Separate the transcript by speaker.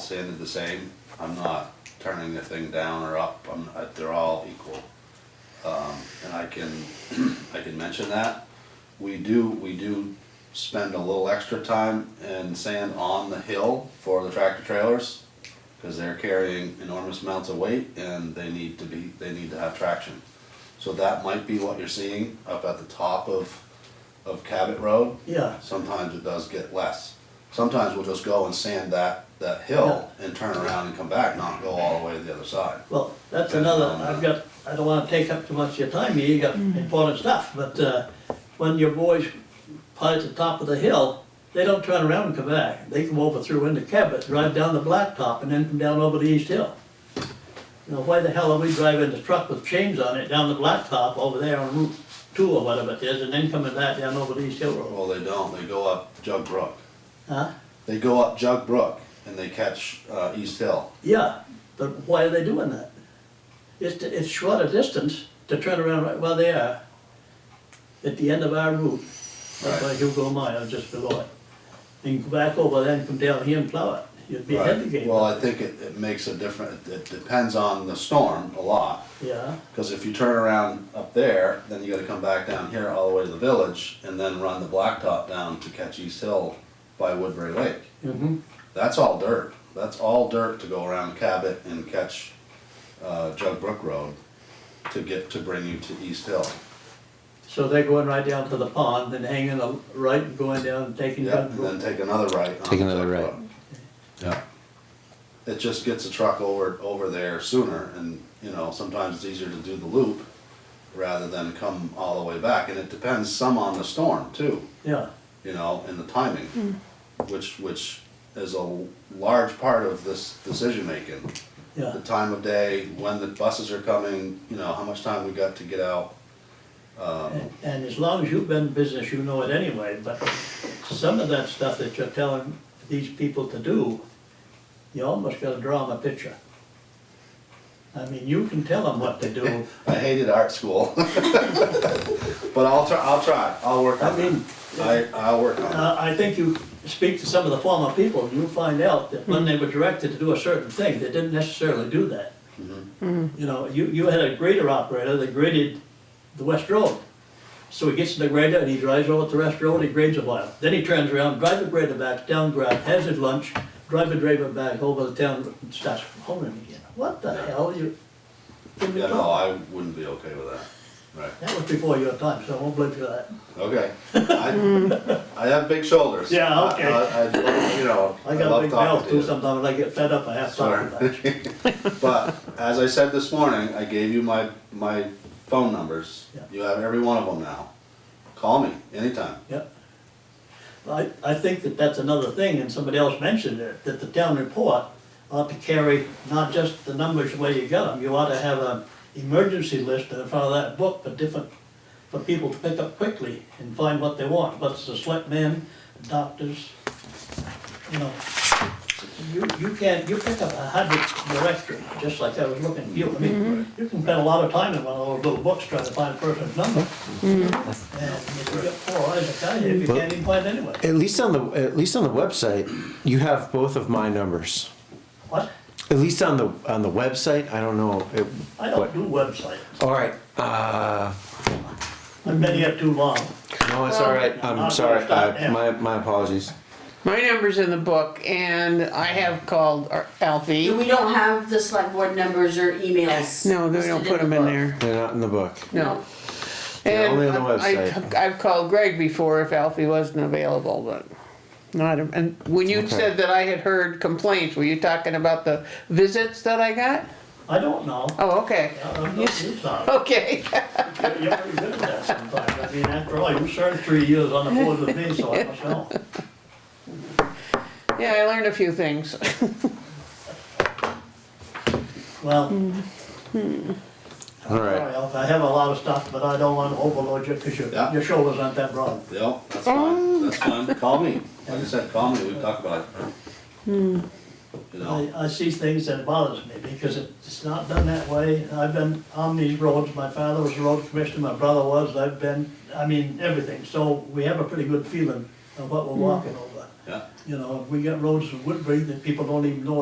Speaker 1: standard the same. I'm not turning the thing down or up, I'm, uh, they're all equal. Um, and I can, I can mention that. We do, we do spend a little extra time and sand on the hill for the tractor trailers. Cause they're carrying enormous amounts of weight and they need to be, they need to have traction. So that might be what you're seeing up at the top of, of Cabot Road.
Speaker 2: Yeah,
Speaker 1: Sometimes it does get less. Sometimes we'll just go and sand that, that hill and turn around and come back, not go all the way to the other side.
Speaker 2: well, that's another, I've got, I don't wanna take up too much of your time here, you got important stuff, but, uh, when your boys part at the top of the hill, they don't turn around and come back, they come over through into Cabot, drive down the blacktop and then come down over the east hill. You know, why the hell are we driving the truck with chains on it down the blacktop over there on Route Two or whatever it is, and then coming back down over the east hill road?
Speaker 1: Well, they don't, they go up Jug Brook.
Speaker 2: Huh?
Speaker 1: They go up Jug Brook and they catch, uh, East Hill.
Speaker 2: Yeah, but why are they doing that? It's, it's short a distance to turn around right where they are, at the end of our route, up by
Speaker 1: Right.
Speaker 2: Hugo Meyer, just below it. And go back over there and come down here and plow it, you'd be ahead of the
Speaker 1: Right.
Speaker 2: game.
Speaker 1: Well, I think it, it makes a difference, it depends on the storm a lot.
Speaker 2: Yeah,
Speaker 1: Cause if you turn around up there, then you gotta come back down here all the way to the village and then run the blacktop down to catch East Hill by Woodbury Lake.
Speaker 2: mm-hmm,
Speaker 1: That's all dirt. That's all dirt to go around Cabot and catch uh, Jug Brook Road to get to bring you to East Hill.
Speaker 2: so they're going right down to the pond, then hanging a right and going down and taking
Speaker 1: Yeah,
Speaker 2: down.
Speaker 1: and then take another right. on
Speaker 3: Take another
Speaker 1: Jug
Speaker 3: right.
Speaker 1: Brook.
Speaker 3: Yeah.
Speaker 1: It just gets the truck over over there sooner, and you know sometimes it's easier to do the loop rather than come all the way back. And it depends some on the storm too,
Speaker 2: Yeah,
Speaker 1: you know, and the timing, which which is a large part of this decision making.
Speaker 2: yeah,
Speaker 1: the time of day, when the buses are coming, you know, how much time we got to get out. Um,
Speaker 2: and and as long as you've been in business, you know it anyway, but some of that stuff that you're telling these people to do, you almost gotta draw them a picture. I mean, you can tell them what to do,
Speaker 1: I hated art school. But I'll try, I'll try, I'll work
Speaker 2: I
Speaker 1: on it.
Speaker 2: mean,
Speaker 1: I, I'll work on
Speaker 2: uh, I think you speak to some of the former people, and you'll find out that
Speaker 1: Mm-hmm.
Speaker 2: when they were directed to do a certain thing, they didn't necessarily do that.
Speaker 1: Mm-hmm.
Speaker 2: You know, you, you had a grader operator that graded the west road. So he gets to the grader and he drives over to the west road, he grades a while. Then he turns around, drives the grader back, down grab, has his lunch, drives the grader back over the town, and starts honing again. What the hell, you?
Speaker 1: it. Yeah, no, I wouldn't be okay with that. Right,
Speaker 2: That was before your time, so I won't blame you for that.
Speaker 1: okay. I, I have big shoulders.
Speaker 2: Yeah, okay.
Speaker 1: I- I- I- You know, I
Speaker 2: I got a
Speaker 1: love
Speaker 2: big mouth
Speaker 1: talking to
Speaker 2: too
Speaker 1: you.
Speaker 2: sometimes, when I get fed up, I have to talk about it.
Speaker 1: Sorry. But as I said this morning, I gave you my, my phone numbers.
Speaker 2: Yeah.
Speaker 1: You have every one of them now. Call me anytime.
Speaker 2: Yep. I, I think that that's another thing, and somebody else mentioned it, that the town report ought to carry not just the numbers where you got them, you ought to have an emergency list in front of that book for different, for people to pick up quickly and find what they want, what's the selectmen, doctors, you know. You, you can, you pick up a hundred directory, just like I was looking, you, I mean, you can spend a lot of time in one of those little books trying to find a person's number. And if you got four eyes, I tell you, you can't even find anyone.
Speaker 3: At least on the at least on the website, you have both of my numbers.
Speaker 2: What?
Speaker 3: At least on the on the website, I don't know. It,
Speaker 2: I don't
Speaker 3: what-
Speaker 2: do websites.
Speaker 3: all right. Uh,
Speaker 2: I've been here too long.
Speaker 3: no, it's all right.
Speaker 2: I'm gonna
Speaker 3: I'm sorry.
Speaker 2: stop
Speaker 3: I,
Speaker 2: now.
Speaker 3: my my apologies.
Speaker 4: My number's in the book and I have called
Speaker 5: Do
Speaker 4: Alfie.
Speaker 5: We don't have the select board numbers or emails.
Speaker 4: No, they don't
Speaker 5: listed
Speaker 4: put them in
Speaker 5: book.
Speaker 4: there,
Speaker 3: They're not in the book.
Speaker 4: no.
Speaker 3: They're
Speaker 4: And
Speaker 3: only on the
Speaker 4: I-
Speaker 3: website.
Speaker 4: I- I've called Greg before if Alfie wasn't available, but not, and when you
Speaker 3: Okay.
Speaker 4: said that I had heard complaints, were you talking about the visits that I got?
Speaker 2: I don't know.
Speaker 4: Oh, okay,
Speaker 2: I'm not, you sorry.
Speaker 4: okay.
Speaker 2: You're you're pretty good at that sometimes. I mean, after all, you served three years on the board with me, so I must know.
Speaker 4: Yeah, I learned a few things.
Speaker 2: Well,
Speaker 3: All right.
Speaker 2: sorry, Alf, I have a lot of stuff, but I don't want to overload you because your,
Speaker 1: Yeah.
Speaker 2: your shoulders aren't that broad.
Speaker 1: Yep, that's fine, that's fine, call me, like I said, call me, we can talk about it. You know,
Speaker 2: I, I see things that bothers me because it- it's not done that way. I've been on these roads, my father was a road commissioner, my brother was, I've been, I mean, everything. So we have a pretty good feeling of what we're walking over.
Speaker 1: yeah.
Speaker 2: You know, we got roads in Woodbury that people don't even know